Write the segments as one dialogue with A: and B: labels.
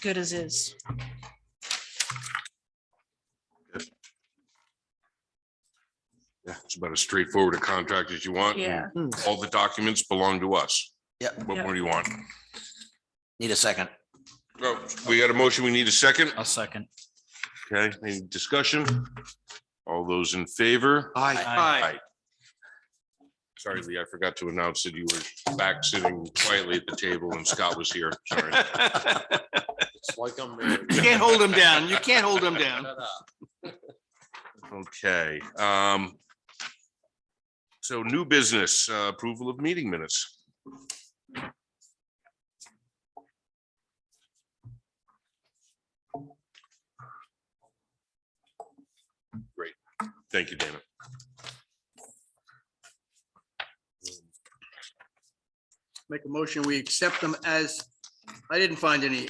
A: good as is.
B: Yeah, it's about as straightforward a contract as you want. and
A: Yeah,
B: All the documents belong to us.
C: Yep.
B: What
A: Yeah.
B: more do you want?
C: Need a second.
B: Well, We got a motion. We need a second.
D: I'll second.
B: Okay, any discussion? All those in favor?
D: Aye.
B: Aye. Sorry, Lee, I forgot to announce that you were back sitting quietly at the table and Scott was here. Sorry.
E: You can't hold them down. You can't hold them down.
B: Okay, um. So new business, uh, approval of meeting minutes. Great, thank you, Dana.
E: Make a motion, we accept them as, I didn't find any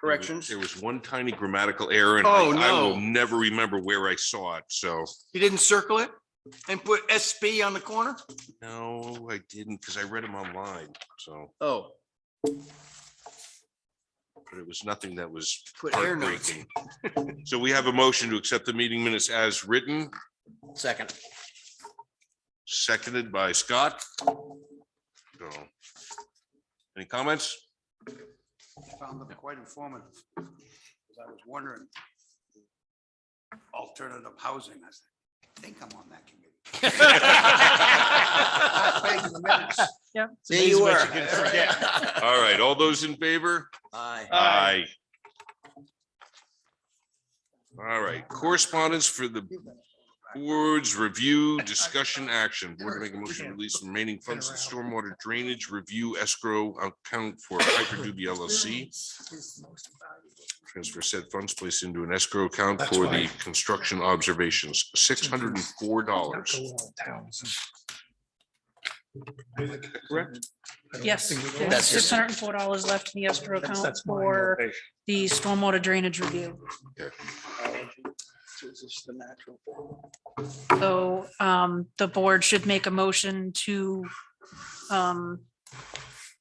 E: corrections.
B: There was one tiny grammatical error and
E: Oh,
B: I- I will
E: no.
B: never remember where I saw it, so.
E: You didn't circle it and put SB on the corner?
B: No, I didn't, because I read them online, so,
E: Oh,
B: but it was nothing that was
E: put air notes.
B: heartbreaking. So we have a motion to accept the meeting minutes as written,
C: Second.
B: seconded by Scott. So, Any comments?
F: found them quite informative. 'cause I was wondering. Alternative housing, I said, I think I'm on that committee. I played in the minutes.
C: There you were.
B: All right, all those in favor?
C: Aye.
B: Aye. All right, correspondence for the board's review, discussion, action. Board to make a motion to release remaining funds to stormwater drainage review escrow account for Piper Doobie LLC. Transfer said funds placed into an escrow account for the construction observations, six hundred and four dollars.
A: yes. There's
C: That's it.
A: six hundred and four dollars left in the escrow account for the stormwater drainage review. So um, the board should make a motion to um,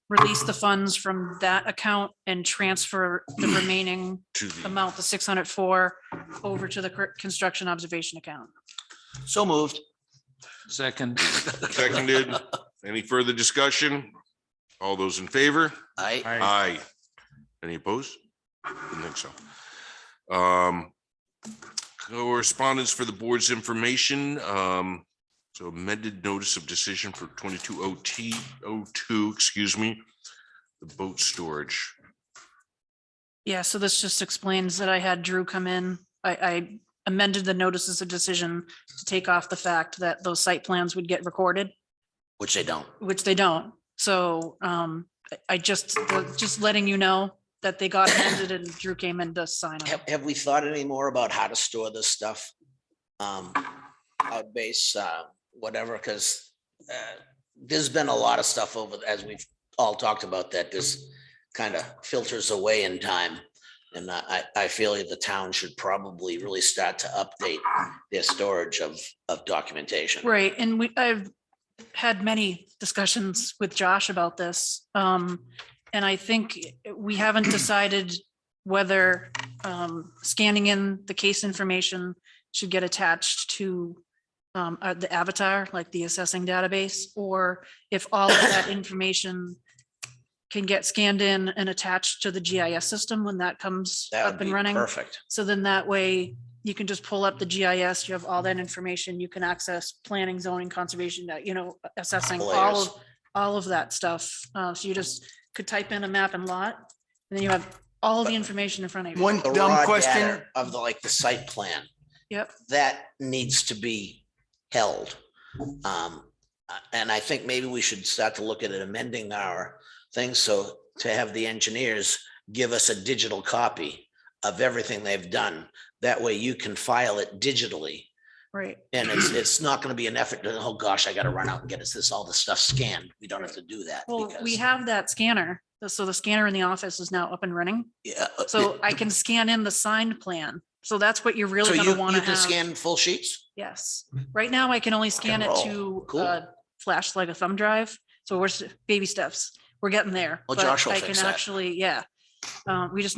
A: release the funds from that account and transfer the remaining
B: To the,
A: amount, the six hundred four, over to the cor- construction observation account.
C: So moved.
D: Second.
B: seconded, any further discussion? All those in favor?
C: Aye.
D: Aye.
B: Aye. Any opposed? Didn't think so. Um, correspondence for the board's information, um, so amended notice of decision for twenty-two O T, O two, excuse me. The boat storage.
A: Yeah, so this just explains that I had Drew come in. I, I amended the notices of decision to take off the fact that those site plans would get recorded,
C: Which they don't.
A: which they don't. So um, I- I just, just letting you know that they got amended and Drew came in to sign
C: Have,
A: it.
C: have we thought any more about how to store this stuff? Um, out base, uh, whatever, because uh, there's been a lot of stuff over, as we've all talked about, that this kind of filters away in time. And I, I I feel the town should probably really start to update their storage of, of documentation.
A: Right, and we, I've had many discussions with Josh about this. Um, and I think we haven't decided whether um, scanning in the case information should get attached to um, uh, the avatar, like the assessing database, or if all of that information can get scanned in and attached to the GIS system when that comes
C: That
A: up
C: would be
A: and running.
C: perfect.
A: So then that way you can just pull
C: Mm-hmm.
A: up the GIS, you have all that information, you can access planning, zoning, conservation, that, you know, assessing all
C: Layers.
A: of, all of that stuff. Uh, so you
C: Mm-hmm.
A: just could type in a map and lot, and then you have all the information in front of you.
E: One
C: The raw
E: dumb question.
C: data Of the, like, the site plan.
A: Yep,
C: that needs to be held. Um, uh, and I think maybe we should start to look at amending our thing, so to have the engineers give us a digital copy of everything they've done. That way you can file it digitally
A: right.
C: and it's, it's not gonna be an effort to, oh gosh, I gotta run out and get us this, all this stuff scanned. We don't have to do that.
A: Well, we
C: because-
A: have that scanner. So the scanner in the office is now up and running.
C: Yeah, uh,
A: So I can scan in the signed plan. So that's what you're
C: So
A: really
C: you,
A: gonna wanna
C: you can
A: have.
C: scan full sheets?
A: Yes. Right now I can only scan it
C: Mm-hmm. roll.
A: to
C: Cool.
A: uh, flash like a thumb drive. So we're s- baby steps. We're getting there.
C: Well,
A: but
C: Josh will
A: I can
C: fix that.
A: Actually, yeah. Uh, We just need